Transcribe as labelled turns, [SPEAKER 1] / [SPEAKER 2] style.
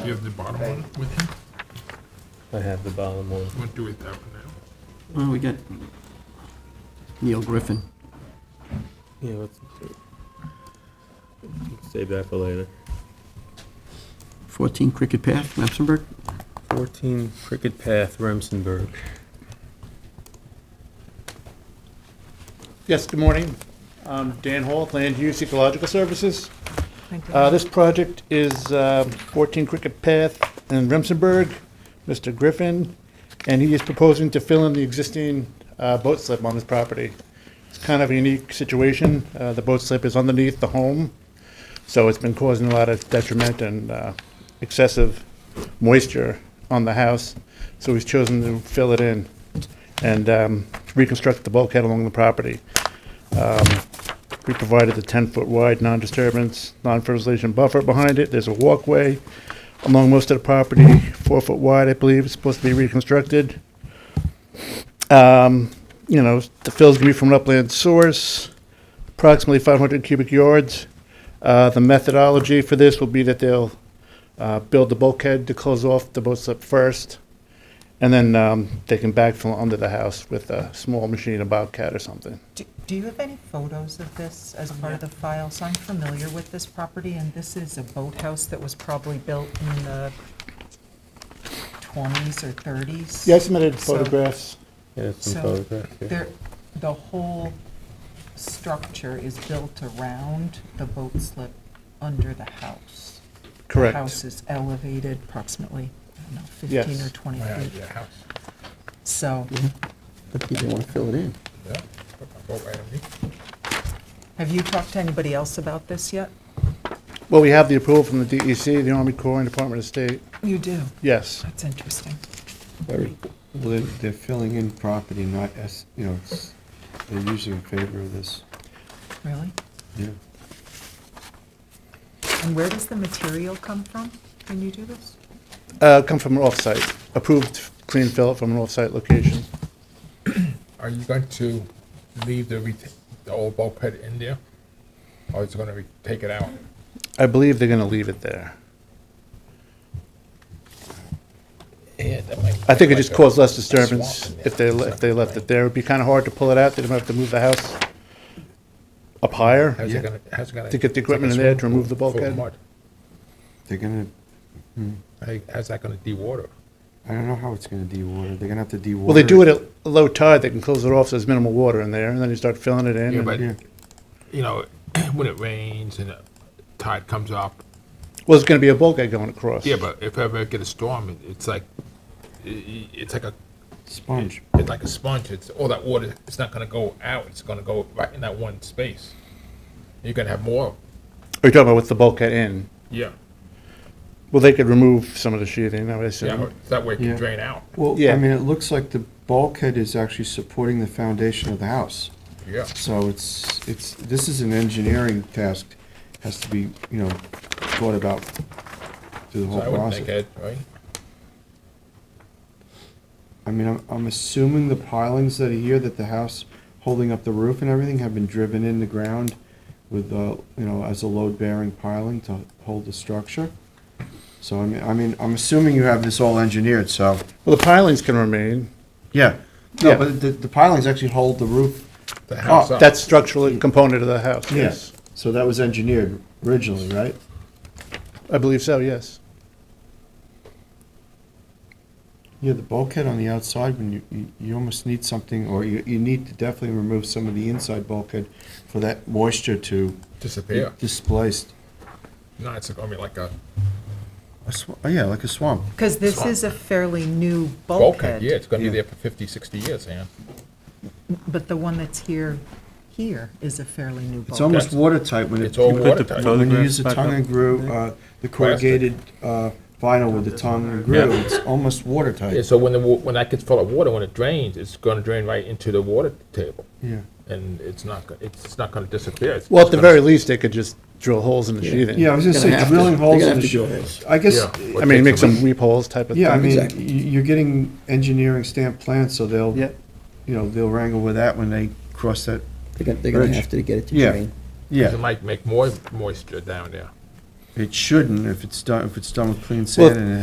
[SPEAKER 1] Do you have the bottom one with him?
[SPEAKER 2] I have the bottom one.
[SPEAKER 1] We'll do it that one now.
[SPEAKER 3] Well, we got Neil Griffin.
[SPEAKER 2] Yeah, let's save that for later.
[SPEAKER 3] 14 Cricket Path, Mapsenburg.
[SPEAKER 2] 14 Cricket Path, Remsenburg.
[SPEAKER 4] Yes, good morning. I'm Dan Hall, Land Use Ecological Services.
[SPEAKER 5] Thank you.
[SPEAKER 4] Uh, This project is uh, 14 Cricket Path in Remsenburg, Mr. Griffin, and he is proposing to fill in the existing uh, boat slip on his property. It's kind of a unique situation. Uh, The boat slip is underneath the home, so it's been causing a lot of detriment and uh, excessive moisture on the house, so he's chosen to fill it in and um, reconstruct the bulkhead along the property. Um, We provided the 10-foot wide non-disturbance, non-fertilization buffer behind it. There's a walkway along most of the property, four foot wide, I believe, it's supposed to be reconstructed. Um, You know, the fill's gonna be from an upland source, approximately 500 cubic yards. Uh, The methodology for this will be that they'll uh, build the bulkhead to close off the boat slip first, and then um, they can backfill under the house with a small machine, a bobcat or something.
[SPEAKER 5] Do- Do you have any photos of this as part of the file? So I'm familiar with this property, and this is a boathouse that was probably built in the 20s or 30s.
[SPEAKER 4] Yeah, I submitted
[SPEAKER 5] So-
[SPEAKER 4] photographs.
[SPEAKER 2] Yeah, some
[SPEAKER 5] So,
[SPEAKER 2] photographs. yeah.
[SPEAKER 5] There, the whole structure is built around the boat slip under the house. The
[SPEAKER 4] Correct.
[SPEAKER 5] house is elevated approximately, I don't know, 15
[SPEAKER 4] Yes.
[SPEAKER 5] or 20
[SPEAKER 1] Yeah,
[SPEAKER 5] feet.
[SPEAKER 1] yeah, house.
[SPEAKER 5] So
[SPEAKER 3] But they want to fill it in.
[SPEAKER 1] Yeah. Put my boat right on me.
[SPEAKER 5] have you talked to anybody else about this yet?
[SPEAKER 4] Well, we have the approval from the DEC, the Army Corps, and Department of State.
[SPEAKER 5] You do.
[SPEAKER 4] Yes,
[SPEAKER 5] That's interesting.
[SPEAKER 6] Well, they're, they're filling in property, not as, you know, it's, they're usually in favor of this,
[SPEAKER 5] Really?
[SPEAKER 6] yeah.
[SPEAKER 5] And where does the material come from when you do this?
[SPEAKER 4] uh, come from an off-site, approved clean fill from an off-site location.
[SPEAKER 1] Are you going to leave the reta- the old bulkhead in there? Or is it gonna be, take it out?
[SPEAKER 4] I believe they're gonna leave it there.
[SPEAKER 1] Yeah, that might.
[SPEAKER 4] I think it just caused less disturbance
[SPEAKER 1] swamp in
[SPEAKER 4] if they, le- if they left it there. It'd be kinda hard to pull it out, they'd have to move the house up higher.
[SPEAKER 1] How's it gonna, how's it gonna?
[SPEAKER 4] To get the
[SPEAKER 1] it's like a
[SPEAKER 4] equipment in there to
[SPEAKER 1] swimming
[SPEAKER 4] remove the
[SPEAKER 1] pool full of
[SPEAKER 4] bulkhead?
[SPEAKER 1] mud.
[SPEAKER 6] They're gonna,
[SPEAKER 1] How- How's that gonna de-water?
[SPEAKER 6] I don't know how it's gonna de-water, they're gonna have to de-water.
[SPEAKER 4] Well, they do it at low tide, they can close it off, so there's minimal water in there, and then you start filling it in.
[SPEAKER 1] Yeah,
[SPEAKER 4] and-
[SPEAKER 1] but,
[SPEAKER 6] Yeah.
[SPEAKER 1] you know, when it rains and the tide comes up,
[SPEAKER 4] Well, it's gonna be a bulkhead going across.
[SPEAKER 1] yeah, but if ever I get a storm, it- it's like, i- i- it's like a
[SPEAKER 6] Sponge,
[SPEAKER 1] it's like a sponge. It's all that water. It's not going to go out. It's going to go right in that one space. You're going to have more.
[SPEAKER 4] Are you talking about with the bulkhead in?
[SPEAKER 1] Yeah.
[SPEAKER 4] Well, they could remove some of the sheathing, I would assume.
[SPEAKER 1] Yeah. That way it can
[SPEAKER 6] Yeah.
[SPEAKER 1] drain out.
[SPEAKER 6] well,
[SPEAKER 4] Yeah.
[SPEAKER 6] I mean, it looks like the bulkhead is actually supporting the foundation of the house.
[SPEAKER 1] Yeah.
[SPEAKER 6] So it's, it's, this is an engineering task, has to be, you know, thought about through the
[SPEAKER 1] So
[SPEAKER 6] whole
[SPEAKER 1] I would think
[SPEAKER 6] process.
[SPEAKER 1] it right.
[SPEAKER 6] I mean, I'm, I'm assuming the pilings that are here, that the house holding up the roof and everything have been driven in the ground with, uh, you know, as a load-bearing piling to hold the structure. So I mean, I mean, I'm assuming you have this all engineered, so,
[SPEAKER 4] Well, the pilings can remain.
[SPEAKER 6] yeah. No,
[SPEAKER 4] Yeah.
[SPEAKER 6] but the, the pilings actually hold the roof.
[SPEAKER 1] The house.
[SPEAKER 6] Oh,
[SPEAKER 1] up.
[SPEAKER 4] That structural component of the house, yes.
[SPEAKER 6] Yes. So that was engineered originally, right?
[SPEAKER 4] I believe so, yes.
[SPEAKER 6] Yeah, the bulkhead on the outside, when you, you, you almost need something, or you, you need to definitely remove some of the inside bulkhead for that moisture to be
[SPEAKER 1] disappear.
[SPEAKER 6] displaced.
[SPEAKER 1] No, it's going to be like a
[SPEAKER 6] A sw- oh, yeah, like a swamp.
[SPEAKER 5] Because this is a fairly new
[SPEAKER 1] bulkhead.
[SPEAKER 5] bulkhead.
[SPEAKER 1] Yeah, it's going to be
[SPEAKER 6] Yeah.
[SPEAKER 1] there for 50, 60 years, man.
[SPEAKER 5] But the one that's here, here is a fairly new
[SPEAKER 6] It's
[SPEAKER 5] bulkhead.
[SPEAKER 6] almost watertight when it.
[SPEAKER 1] It's all
[SPEAKER 6] you put the-
[SPEAKER 1] watertight.
[SPEAKER 6] When you use
[SPEAKER 2] Photographs
[SPEAKER 6] the
[SPEAKER 2] back
[SPEAKER 6] tongue
[SPEAKER 2] up.
[SPEAKER 6] and groove, uh, the corrugated uh, vinyl with the tongue and groove, it's almost
[SPEAKER 1] Yeah,
[SPEAKER 6] watertight.
[SPEAKER 1] so when the wa- when that gets full of water, when it drains, it's going to drain right into the water table,
[SPEAKER 6] Yeah,
[SPEAKER 1] and it's not go- it's, it's not going to disappear. It's
[SPEAKER 4] Well, at
[SPEAKER 1] just
[SPEAKER 4] the
[SPEAKER 1] gonna-
[SPEAKER 4] very least, they could just drill holes in the sheathing.
[SPEAKER 6] yeah, I was gonna
[SPEAKER 3] They're gonna
[SPEAKER 6] say
[SPEAKER 3] have to-
[SPEAKER 6] drilling
[SPEAKER 3] they're
[SPEAKER 6] holes
[SPEAKER 3] gonna
[SPEAKER 6] in
[SPEAKER 3] have
[SPEAKER 6] the,
[SPEAKER 3] to drill
[SPEAKER 6] sh- I guess,
[SPEAKER 1] Yeah.
[SPEAKER 4] I mean, make some reap holes type of thing.
[SPEAKER 6] yeah, I mean, y-
[SPEAKER 3] Exactly.
[SPEAKER 6] you're getting engineering stamp plans, so they'll,
[SPEAKER 4] Yeah.
[SPEAKER 6] you know, they'll wrangle with that when they cross that,
[SPEAKER 3] They're going to
[SPEAKER 6] Bridge.
[SPEAKER 3] have to get it to
[SPEAKER 6] Yeah.
[SPEAKER 3] drain.
[SPEAKER 1] It
[SPEAKER 6] yeah.
[SPEAKER 1] might make more moisture down there.
[SPEAKER 6] It shouldn't, if it's done, if it's done with clean
[SPEAKER 4] Well,
[SPEAKER 6] sand and it